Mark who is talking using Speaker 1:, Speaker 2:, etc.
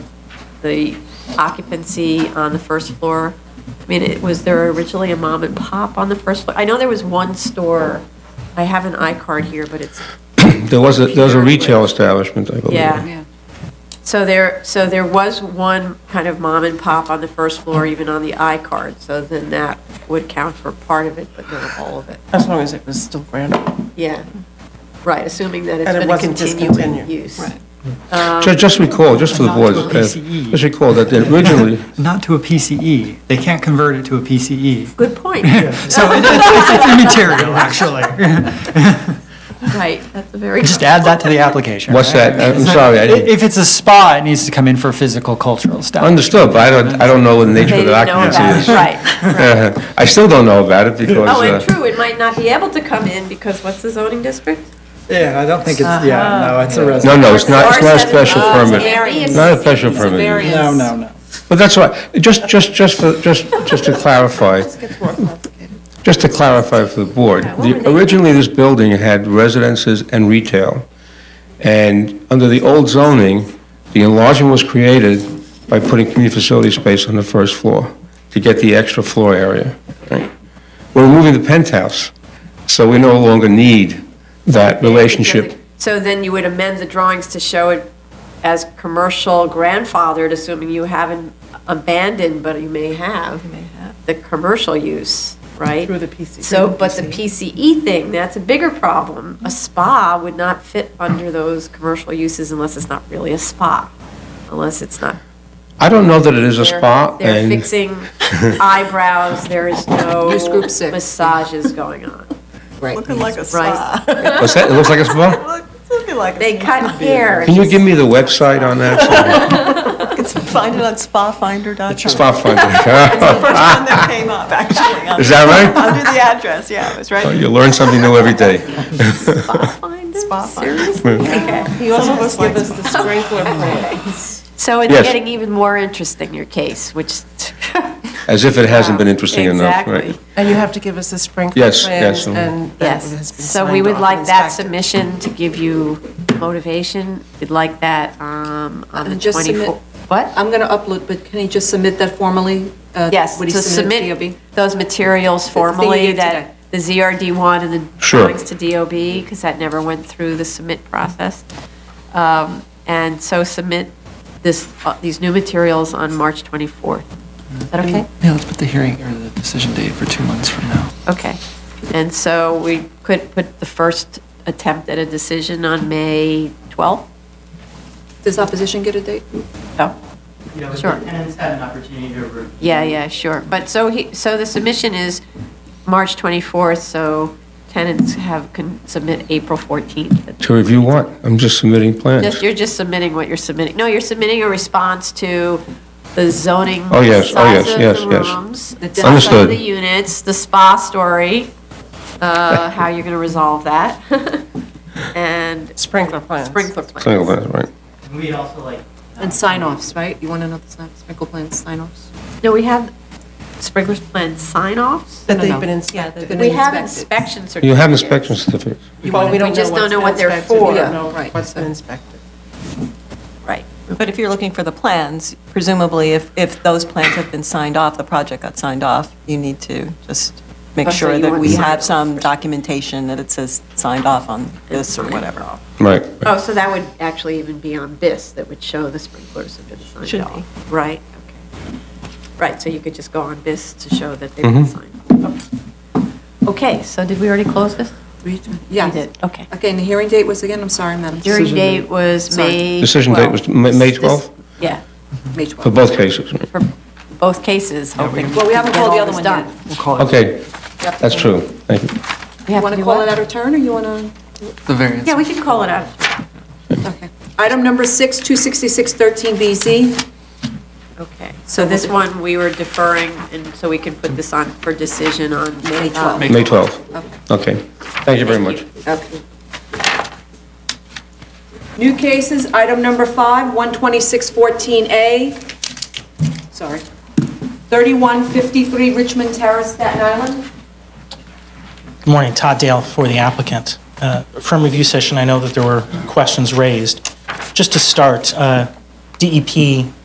Speaker 1: the occupancy on the first floor? I mean, it, was there originally a mom and pop on the first floor? I know there was one store, I have an iCard here, but
Speaker 2: Oh,
Speaker 1: it's,
Speaker 3: There was a, there was a retail establishment, I believe.
Speaker 1: yeah.
Speaker 4: Yeah.
Speaker 1: So there, so there was one kind of mom and pop on the first floor, even on the iCard, so then that would count for part of it, but not all of it.
Speaker 2: As long as it was still branded.
Speaker 1: Yeah, right, assuming that it's
Speaker 2: And it
Speaker 1: been a
Speaker 2: wasn't
Speaker 1: continuing
Speaker 2: discontinued,
Speaker 1: use. Um,
Speaker 2: right.
Speaker 3: Ju- Just recall, just for the board,
Speaker 5: Not to a PCE.
Speaker 3: just recall that the- originally,
Speaker 5: Not to a PCE. They can't convert it to a PCE.
Speaker 1: Good point,
Speaker 5: So it- it's it's immaterial, actually.
Speaker 1: right, that's a very.
Speaker 5: Just add that to the application.
Speaker 3: what's that? I'm sorry, I didn't,
Speaker 5: If it's a spa, it needs to come in for physical cultural establishment.
Speaker 3: understood, but I don't, I don't know what the nature
Speaker 1: They
Speaker 3: of the
Speaker 1: didn't know
Speaker 3: occupancy
Speaker 1: about it, Right.
Speaker 3: is. Uh-huh. I still don't know about it because.
Speaker 1: Oh, and
Speaker 3: uh,
Speaker 1: true, it might not be able to come in because what's the zoning district?
Speaker 5: Yeah, I don't think it's, yeah, no, it's a
Speaker 3: No, no, it's not, it's not a
Speaker 1: R7
Speaker 3: special
Speaker 1: laws,
Speaker 3: permit.
Speaker 1: variance.
Speaker 3: Not a special
Speaker 1: It's
Speaker 3: permit.
Speaker 1: variance.
Speaker 5: no.
Speaker 3: But that's all right, just, just, just, for- just, just to clarify,
Speaker 2: Gets more complicated.
Speaker 3: just to clarify for the board.
Speaker 1: Yeah, what were
Speaker 3: the-
Speaker 1: they-
Speaker 3: Originally, this building had residences and retail. And under the old zoning, the enlargement was created by putting community facility space on the first floor to get the extra floor area. right? We're moving the penthouse, so we no longer need that relationship.
Speaker 1: So then you would amend the drawings to show it as commercial grandfathered, assuming you haven't abandoned, but you may have the commercial use, right?
Speaker 2: Through the PC.
Speaker 1: So, but the PCE thing, that's a bigger problem. A spa would not fit under those commercial uses unless it's not really a spa, unless it's not.
Speaker 3: I don't know that it is a
Speaker 1: they're-
Speaker 3: spa,
Speaker 1: They're
Speaker 3: and
Speaker 1: fixing eyebrows, there is no
Speaker 4: Use group six.
Speaker 1: massages going on.
Speaker 2: Looking like a
Speaker 1: Right.
Speaker 2: spa.
Speaker 3: what's that? It looks like a spa?
Speaker 2: Look, it's Looking like a
Speaker 1: They
Speaker 2: spa.
Speaker 1: cut hair.
Speaker 3: Can you give me the website on that?
Speaker 2: It's- Find it on spafinder.com.
Speaker 3: Spa finder.
Speaker 2: First one that came up, actually. on-
Speaker 3: Is that right?
Speaker 2: Under the address, yeah, it was
Speaker 3: Oh,
Speaker 2: right.
Speaker 3: You learn something new every day.
Speaker 2: Spa finder.
Speaker 1: Okay.
Speaker 2: He also must give us the sprinkler
Speaker 1: So it's
Speaker 3: Yes.
Speaker 1: getting even more interesting, your case, which.
Speaker 3: As if it hasn't been interesting enough, right?
Speaker 1: Exactly.
Speaker 2: And you have to give us a sprinkler
Speaker 3: Yes, yes, um,
Speaker 2: And that has been
Speaker 1: Yes, so we
Speaker 2: signed
Speaker 1: would
Speaker 2: off
Speaker 1: like
Speaker 2: and
Speaker 1: that
Speaker 2: inspected.
Speaker 1: submission to give you motivation. We'd like that um,
Speaker 2: Uh,
Speaker 1: on the
Speaker 4: And just submit-
Speaker 1: 24th. What?
Speaker 4: I'm going to upload, but can he just submit that formally? uh,
Speaker 1: Yes,
Speaker 4: what he
Speaker 1: to
Speaker 4: submitted to
Speaker 1: submit those materials
Speaker 4: thing you
Speaker 1: formally,
Speaker 4: did
Speaker 1: that, the ZRD one and the
Speaker 3: Sure.
Speaker 1: drawings to DOB, because that never went through the submit process. Um, And so submit this, uh, these new materials on March 24th. Is that okay?
Speaker 6: Yeah, let's put the hearing or the decision date for two months from now.
Speaker 1: Okay. And so we could put the first attempt at a decision on May 12th?
Speaker 4: DOB. Does opposition get a date?
Speaker 1: No?
Speaker 7: you know, if the
Speaker 1: Oh. Sure.
Speaker 7: tenants had an opportunity to review.
Speaker 1: Yeah, yeah, sure. But so he, so the submission is March 24th, so tenants have, can submit April 14th.
Speaker 3: To review what? I'm just submitting plans.
Speaker 1: Just, you're just submitting what you're submitting. No, you're submitting a response to the zoning.
Speaker 3: Oh, yes. Oh,
Speaker 1: size
Speaker 3: yes,
Speaker 1: of
Speaker 3: yes,
Speaker 1: the
Speaker 3: yes.
Speaker 1: rooms, The depth of
Speaker 3: Understood.
Speaker 1: the units, the spa story, uh, how you're going to resolve that. And
Speaker 2: Sprinkler plans.
Speaker 1: sprinkler plans.
Speaker 3: Single plans, right?
Speaker 7: And we'd also like.
Speaker 4: And sign-offs, right? You want to know the sign- sprinkle plan sign-offs?
Speaker 1: No, we have sprinklers plan sign-offs.
Speaker 2: That
Speaker 4: No, no,
Speaker 2: they've
Speaker 4: no.
Speaker 2: been
Speaker 4: They've
Speaker 2: inspected.
Speaker 4: been
Speaker 1: We have
Speaker 4: inspected.
Speaker 1: inspection certificates.
Speaker 3: You have inspection certificates.
Speaker 2: Well, we don't
Speaker 1: just don't know
Speaker 2: what's
Speaker 1: what they're
Speaker 2: inspected. We
Speaker 1: for.
Speaker 2: don't
Speaker 4: Yeah,
Speaker 2: know
Speaker 4: right.
Speaker 2: what's been inspected.
Speaker 1: Right.
Speaker 8: But if you're looking for the plans, presumably if, if those plans have been signed off, the project got signed off, you need to just make
Speaker 1: Oh, so
Speaker 8: sure
Speaker 1: you
Speaker 8: that
Speaker 1: want
Speaker 8: we
Speaker 1: signed
Speaker 8: have
Speaker 1: off
Speaker 8: some documentation that it says signed off on this or whatever.
Speaker 3: Right.
Speaker 1: Oh, so that would actually even be on this, that would show the sprinklers have been signed off.
Speaker 8: Should
Speaker 1: Right, okay. Right, so you could just go on this to show that they've
Speaker 3: Mm-hmm.
Speaker 1: been signed. off. Okay, so did we already close this?
Speaker 4: Yeah.
Speaker 1: We did, okay.
Speaker 4: Okay, and the hearing date was again, I'm sorry, Madam. Chair.
Speaker 1: Hearing date was
Speaker 4: Sorry.
Speaker 1: May.
Speaker 3: Decision date was Ma- May
Speaker 1: This-
Speaker 3: 12th
Speaker 1: Yeah,
Speaker 4: May
Speaker 3: for
Speaker 4: 12th.
Speaker 3: both cases. right?
Speaker 1: for both cases, hoping.
Speaker 4: Well, we haven't
Speaker 1: get
Speaker 4: called the
Speaker 1: all
Speaker 4: other
Speaker 1: this
Speaker 4: one
Speaker 1: done.
Speaker 3: Okay, that's true. Thank you.
Speaker 1: We
Speaker 4: You
Speaker 1: have
Speaker 4: want
Speaker 1: do
Speaker 4: to call
Speaker 1: what?
Speaker 4: it out of turn, or you want to?
Speaker 6: The variance.
Speaker 1: Yeah, we can call it out.
Speaker 4: Okay. Item number six, 266-13BZ.
Speaker 1: Okay, so this one, we were deferring, and so we can put this on for decision on May
Speaker 4: May 12th.
Speaker 1: 12th.
Speaker 3: May 12th. Okay. Thank you very much.
Speaker 4: Okay. New cases, item number five, 12614A, sorry, 3153 Richmond Terrace, Staten Island.
Speaker 9: Good morning, Todd Dale for the applicant. Uh, From review session, I know that there were questions raised. Just to start, uh, DEP